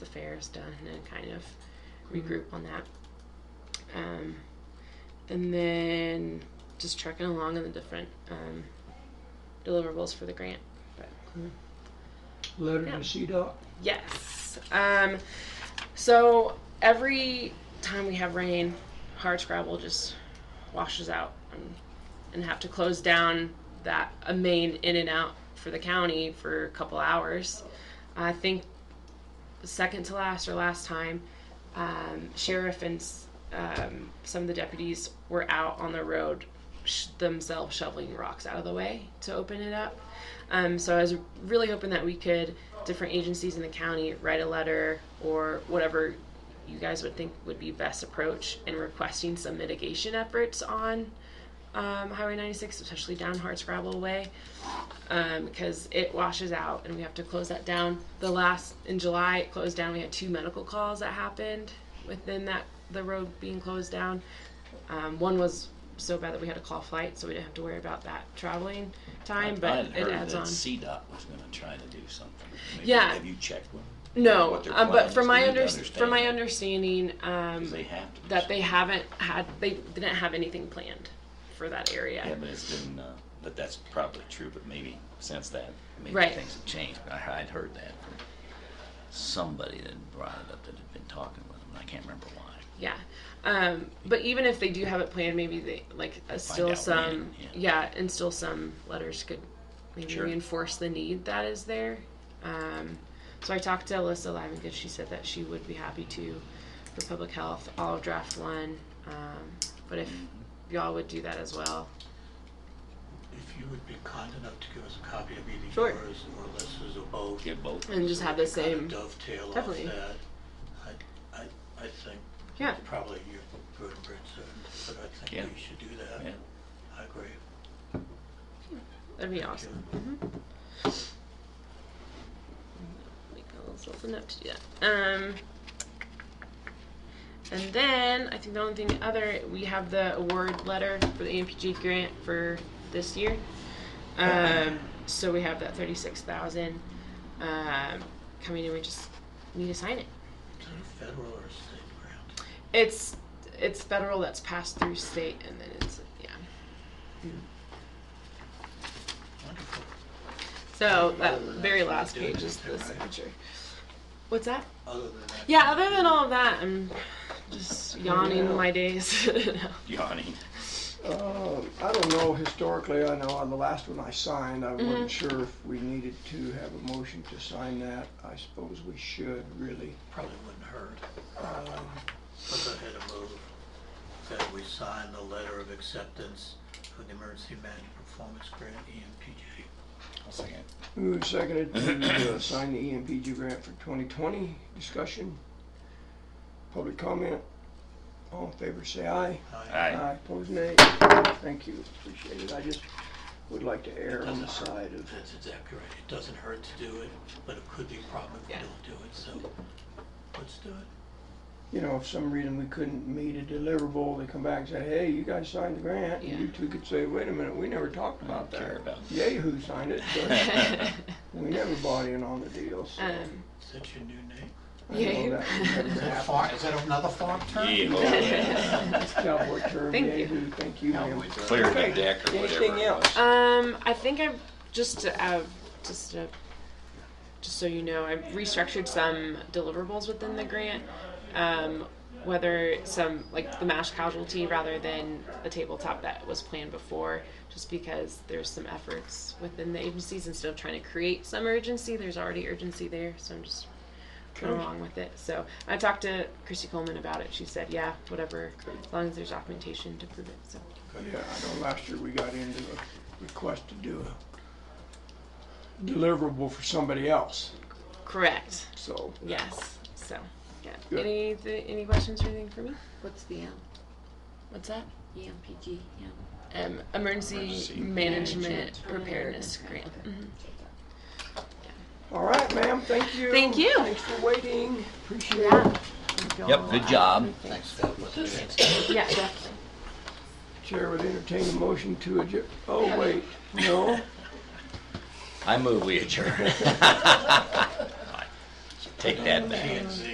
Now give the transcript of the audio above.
affairs done and kind of regroup on that. Um, and then just trucking along on the different um, deliverables for the grant. Letter Yeah. to CDOT. Yes. Um, so every time we have rain, hardscrabble just washes out and, and have to close down that a main in and out for the county for a couple hours. I think second to last or last time, um, sheriff and s- um, some of the deputies were out on the road sh- themselves shoveling rocks out of the way to open it up. Um, so I was really hoping that we could, different agencies in the county, write a letter or whatever you guys would think would be best approach in requesting some mitigation efforts on um, Highway 96, especially down Hardscrabble Way, um, because it washes out and we have to close that down. The last in July, it closed down. We had two medical calls that happened within that the road being closed down. Um, one was so bad that we had to call flight, so we didn't have to worry about that traveling time, I but had it heard adds that on. CDOT was going to try to do something. Maybe- Yeah. Have you checked with them? No, what their um, plan but is. from We my need to under, from understand my that. understanding, 'Cause um, they have to. do that they something. haven't had, they didn't have anything planned for that area. Yeah, but it's been, uh, but that's probably true, but maybe since that, maybe Right. things have changed. But I, I'd heard that from somebody that brought it up that had been talking with them, and I can't remember why. Yeah. Um, but even if they do have it planned, maybe they like uh, still out some when, yeah. yeah. and still some letters could maybe Sure. reinforce the need that is there. Um, so I talked to Alyssa Lyman because she said that she would be happy to for public health. I'll draft one, um, but if y'all would do that as well, If you would be kind enough to give us a copy of either Sure. yours or Alyssa's or both. Get both. and just so have we the can kinda same Dovetail off Definitely. that. I, I, I think yeah. probably your vertebrates are, but I Yeah. think we should do Yeah. that. I agree. That'd be Thank awesome. Make ourselves enough to do that. Um, and then I think the only thing other we have the award letter for the E AMPG grant for this year. Um, so we have that thirty-six thousand um, coming, and we just need to sign it. Is it a federal or a state grant? It's it's federal that's passed through state, and then it's yeah. Wonderful. So that very last page is the signature. What's that? Other than that. Yeah, other than all of that, I'm just yawning my days. Yawning. Um, I don't know, historically, I know on the last one I signed, I wasn't sure if we needed to have a motion to sign that. I suppose we should, really. Probably wouldn't hurt. Um, Let's go ahead and move that we sign the letter of acceptance for the Emergency Management Performance Grant, E EMPG. I'll second. Moved, seconded to uh, sign the EMPG grant for 2020. Discussion? Public comment? All in favor, say aye. Aye. Aye. Aye, opposed, nay. Thank you, appreciate it. I just would like to err on the side of, That's exactly right. It doesn't hurt to do it, but it could be a problem if we Yeah. don't do it, so let's do it. you know, if some reason we couldn't meet a deliverable, they come back and say, hey, you guys signed the grant. And you Yeah. two could say, wait a minute, we never talked I about don't care that. about. Yay, who signed it, but we never bought in on the deal, so. um, Is that your new name? I know that would never Is that a happen. farm, is that another farm term? Yeah, Cowboy term, Thank yay, you. who, thank you, ma'am. clear the deck or whatever. Anything it else? was. um, I think I've just to, uh, just to, just so you know, I've restructured some deliverables within the grant. Um, whether some like the mash casualty rather than the tabletop that was planned before, just because there's some efforts within the agencies instead of trying to create some urgency, there's already urgency there. So I'm just going along with it. So I talked to Christy Coleman about it. She said, yeah, whatever, as long as there's documentation to prove it. So Yeah, I know last year we got into a request to do a deliverable for somebody else, correct. so. Yes. So yeah. Good. Any th- any questions or anything for me? What's the M? E What's that? EMPG, M. Um, emergency, Emergency management, management preparedness preparedness grant. grant. Mhm. All right, ma'am, thank you. Thank you. Thanks for waiting, appreciate it. Yeah. Yep, good job. Thanks, that was Yeah. Definitely. Chair would entertain a motion to adjourn, oh, wait, no? I move we adjourn. Take that back.